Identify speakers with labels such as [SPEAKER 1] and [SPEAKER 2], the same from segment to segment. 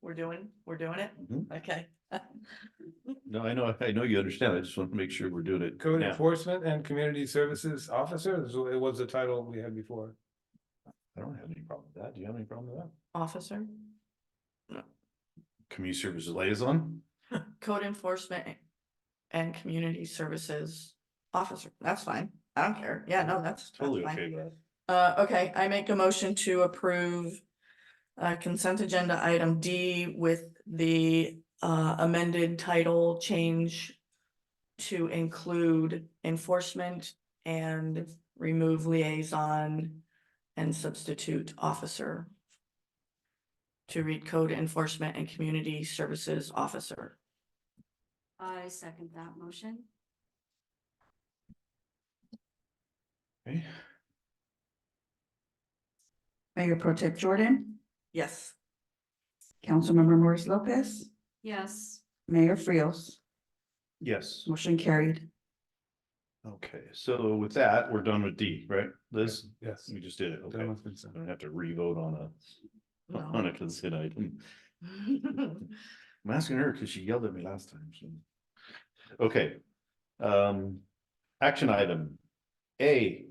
[SPEAKER 1] We're doing, we're doing it?
[SPEAKER 2] Mhm.
[SPEAKER 1] Okay.
[SPEAKER 2] No, I know, I know you understand. I just want to make sure we're doing it.
[SPEAKER 3] Code
[SPEAKER 2] now.
[SPEAKER 3] enforcement and community services officer, this wa- it was the title we had before.
[SPEAKER 2] I don't have any problem with that. Do you have any problem with that?
[SPEAKER 1] Officer,
[SPEAKER 2] Community services liaison?
[SPEAKER 1] code enforcement and community services officer. That's fine. I don't care. Yeah, no, that's. that's
[SPEAKER 2] Totally
[SPEAKER 1] fine.
[SPEAKER 2] okay with that.
[SPEAKER 1] Uh, okay, I make a motion to approve uh, consent agenda item D with the uh, amended title change to include enforcement and remove liaison and substitute officer to read code enforcement and community services officer.
[SPEAKER 4] I second that motion.
[SPEAKER 2] Okay.
[SPEAKER 5] Mayor Pro Tem Jordan,
[SPEAKER 1] Yes.
[SPEAKER 5] Councilmember Maurice Lopez,
[SPEAKER 4] Yes,
[SPEAKER 5] Mayor Frios,
[SPEAKER 2] Yes,
[SPEAKER 5] motion carried.
[SPEAKER 2] okay, so with that, we're done with D, right? Liz,
[SPEAKER 3] Yes.
[SPEAKER 2] we just did it, Mm, okay.
[SPEAKER 3] Done with consent.
[SPEAKER 2] I don't have to re-vote on a, on a consent item. I'm asking her because she yelled at me last time, so. Okay. Um, action item. A,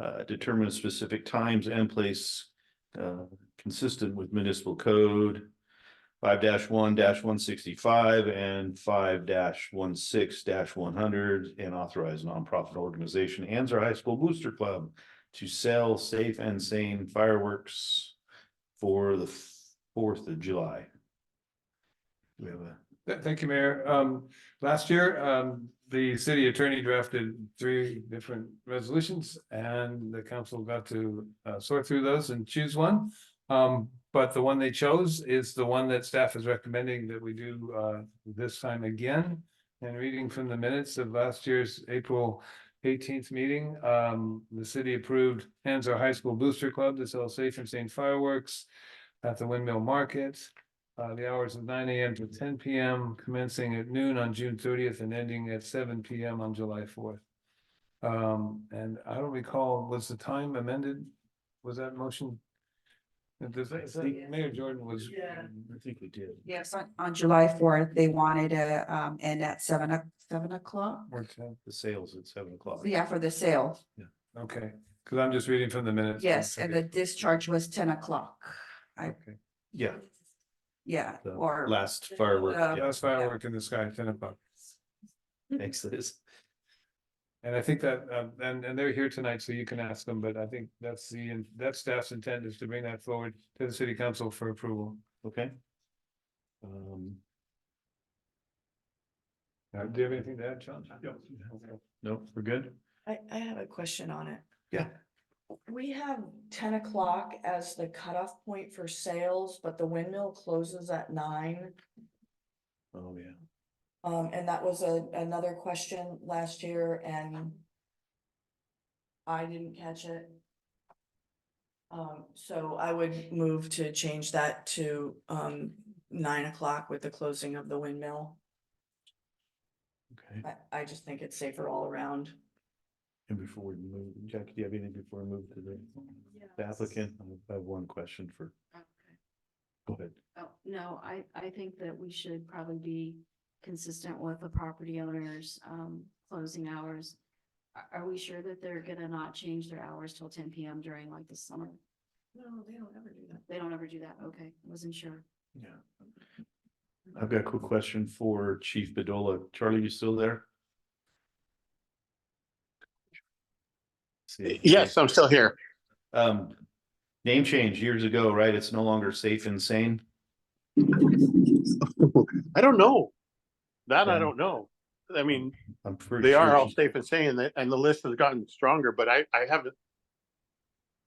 [SPEAKER 2] uh, determine specific times and place, uh, consistent with municipal code. Five one one sixty-five and five 16 one hundred and authorize nonprofit organization Anzar High School Booster Club to sell safe and sane fireworks for the Fourth of July. Do we have a?
[SPEAKER 3] Th- Thank you, Mayor. Um, last year, um, the city attorney drafted three different resolutions and the council got to uh, sort through those and choose one. Um, but the one they chose is the one that staff is recommending that we do uh, this time again. And reading from the minutes of last year's April eighteenth meeting, um, the city approved Hanzo High School Booster Club to sell safe and sane fireworks at the Windmill Market. Uh, the hours of nine AM to ten PM, commencing at noon on June thirtieth and ending at seven PM on July fourth. Um, and I don't recall, was the time amended? Was that motion? Does that- is that- Mayor Jordan was.
[SPEAKER 1] Yeah.
[SPEAKER 2] I think we did.
[SPEAKER 5] Yes, on, on July fourth, they wanted a, um, and at seven, o- seven o'clock.
[SPEAKER 3] worked out.
[SPEAKER 2] The sales at seven o'clock.
[SPEAKER 5] Yeah, for the sale.
[SPEAKER 3] Okay, cause I'm just reading from the minutes.
[SPEAKER 5] Yes, and the discharge was ten o'clock.
[SPEAKER 3] Okay,
[SPEAKER 2] Yeah,
[SPEAKER 5] Yeah,
[SPEAKER 2] the
[SPEAKER 5] or.
[SPEAKER 2] last firework.
[SPEAKER 5] Uh,
[SPEAKER 2] yeah.
[SPEAKER 3] that's firework in the sky, ten o'clock.
[SPEAKER 2] Thanks, Liz.
[SPEAKER 3] And I think that, um, and, and they're here tonight, so you can ask them, but I think that's the, that staff's intent is to bring that forward to the city council for approval.
[SPEAKER 2] Okay. Um,
[SPEAKER 3] Now, Uh, do you have anything to add, John?
[SPEAKER 2] no, we're good?
[SPEAKER 1] I, I have a question on it.
[SPEAKER 2] Yeah.
[SPEAKER 1] We have ten o'clock as the cutoff point for sales, but the windmill closes at nine.
[SPEAKER 2] Oh, yeah.
[SPEAKER 1] Um, and that was a, another question last year and I didn't catch it. Um, so I would move to change that to, um, nine o'clock with the closing of the windmill.
[SPEAKER 2] Okay,
[SPEAKER 1] I, I just think it's safer all around.
[SPEAKER 2] and before we move, Jack, do you have anything before we move to the the
[SPEAKER 4] Yes.
[SPEAKER 2] applicant? I have one question for,
[SPEAKER 4] Okay.
[SPEAKER 2] go ahead.
[SPEAKER 4] oh, no, I, I think that we should probably be consistent with the property owners, um, closing hours. Are, are we sure that they're gonna not change their hours till ten PM during like the summer?
[SPEAKER 1] No, they don't ever do that.
[SPEAKER 4] They don't ever do that, okay, I wasn't sure.
[SPEAKER 2] Yeah. I've got a quick question for Chief Bedola. Charlie, you still there? See,
[SPEAKER 6] Yes, I'm still here.
[SPEAKER 2] Um, name change years ago, right? It's no longer safe and sane.
[SPEAKER 6] I don't know. That
[SPEAKER 2] Yeah.
[SPEAKER 6] I don't know. I mean,
[SPEAKER 2] I'm pretty.
[SPEAKER 6] they are
[SPEAKER 2] sure
[SPEAKER 6] all
[SPEAKER 2] she-
[SPEAKER 6] safe and sane, and the- and the list has gotten stronger, but I, I haven't,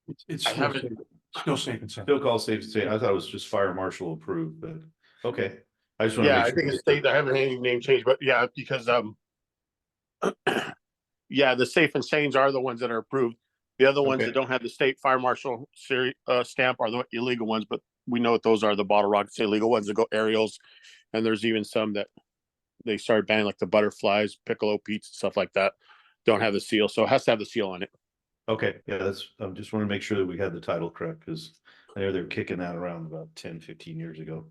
[SPEAKER 7] It's, it's
[SPEAKER 6] I
[SPEAKER 7] still
[SPEAKER 6] haven't-
[SPEAKER 7] safe- still safe and sound.
[SPEAKER 2] Still called safe and sane. I thought it was just fire marshal approved, but okay. I just want to.
[SPEAKER 6] yeah, I think it's state, I haven't had any name change, but yeah, because, um, yeah, the safe and sanes are the ones that are approved. The other ones
[SPEAKER 2] Okay.
[SPEAKER 6] that don't have the state fire marshal seri- uh, stamp are the illegal ones, but we know what those are, the bottle rockets, the illegal ones that go aerials. And there's even some that they started banning, like the butterflies, piccolo peats, stuff like that, don't have the seal, so it has to have the seal on it.
[SPEAKER 2] Okay, yeah, that's, I just want to make sure that we had the title correct because I know they were kicking that around about 10, 15 years ago.